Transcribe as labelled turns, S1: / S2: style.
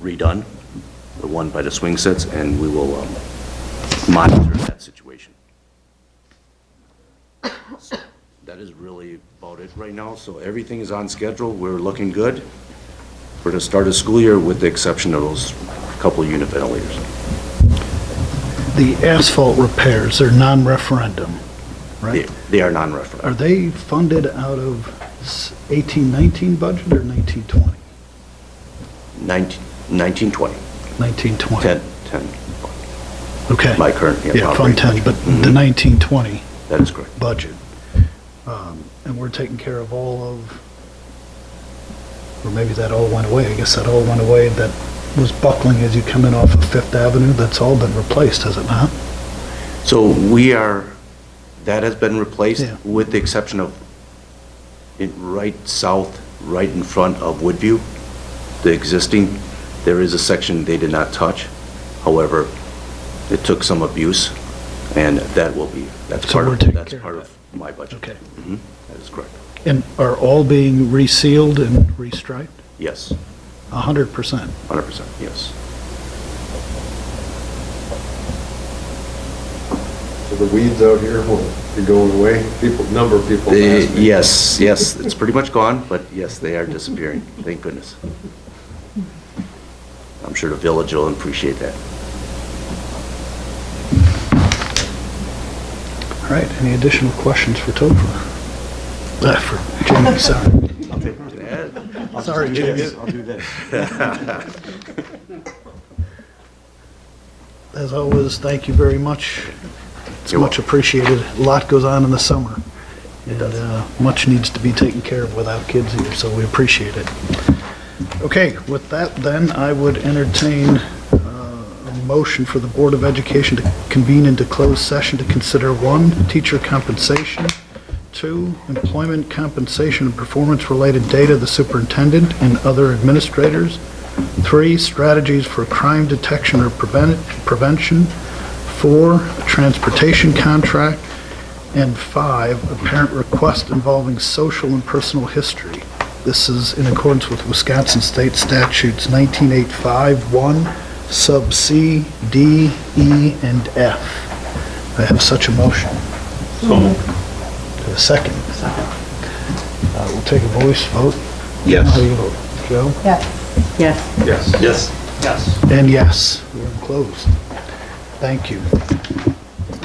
S1: redone, the one by the swing sets, and we will um, monitor that situation. That is really about it right now, so everything is on schedule, we're looking good for the start of school year, with the exception of those couple unit ventilators.
S2: The asphalt repairs, they're non-referendum,
S1: They-
S2: right?
S1: They are
S2: Are
S1: non-referendable.
S2: they funded out of s- 1819 budget or 1920?
S1: 19, 19, 20,
S2: 1920?
S1: 10, 10,
S2: Okay.
S1: my current.
S2: Yeah, Fund 10, but the
S1: Mhm.
S2: 1920
S1: That is correct.
S2: budget. Um, And we're taking care of all of, or maybe that all went away, I guess that all went away, that was buckling as you come in off of Fifth Avenue, that's all been replaced, has it not?
S1: So we are, that has been replaced
S2: Yeah.
S1: with the exception of it right south, right in front of Woodview, the existing, there is a section they did not touch. However, it took some abuse and that will be, that's
S2: So
S1: part
S2: we're
S1: of,
S2: taking
S1: that's
S2: care of
S1: part of my budget.
S2: Okay.
S1: Mhm, That is correct.
S2: And are all being resealed and restriped?
S1: Yes,
S2: 100%?
S1: 100%, yes.
S3: So the weeds out here will be going away. People, number of people
S1: They-
S3: ask me.
S1: Yes, yes, it's pretty much gone, but yes, they are disappearing, thank goodness. I'm sure the village will appreciate that.
S2: All right, any additional questions for Topher? Uh, For Jamie, sorry.
S1: é,
S2: Sorry, Jamie.
S4: I'll do this.
S2: As always, thank you very much. It's
S1: You're
S2: much
S1: welcome.
S2: appreciated. A lot goes on in the summer.
S1: It
S2: and
S1: does.
S2: uh, Much needs to be taken care of without kids here, so we appreciate it. Okay, with that then, I would entertain uh, a motion for the Board of Education to convene into closed session to consider one, teacher compensation, two, employment compensation and performance-related data of the superintendent and other administrators, three, strategies for crime detection or prevent- prevention, four, a transportation contract, and five, a parent request involving social and personal history. This is in accordance with Wisconsin State Statutes 1985-1, sub C, D, E, and F. I have such a motion. So. A second. Second. We'll take a voice vote. How do you vote? Joe?
S5: Yes.
S3: Yes.
S2: And yes, we're closed. Thank you.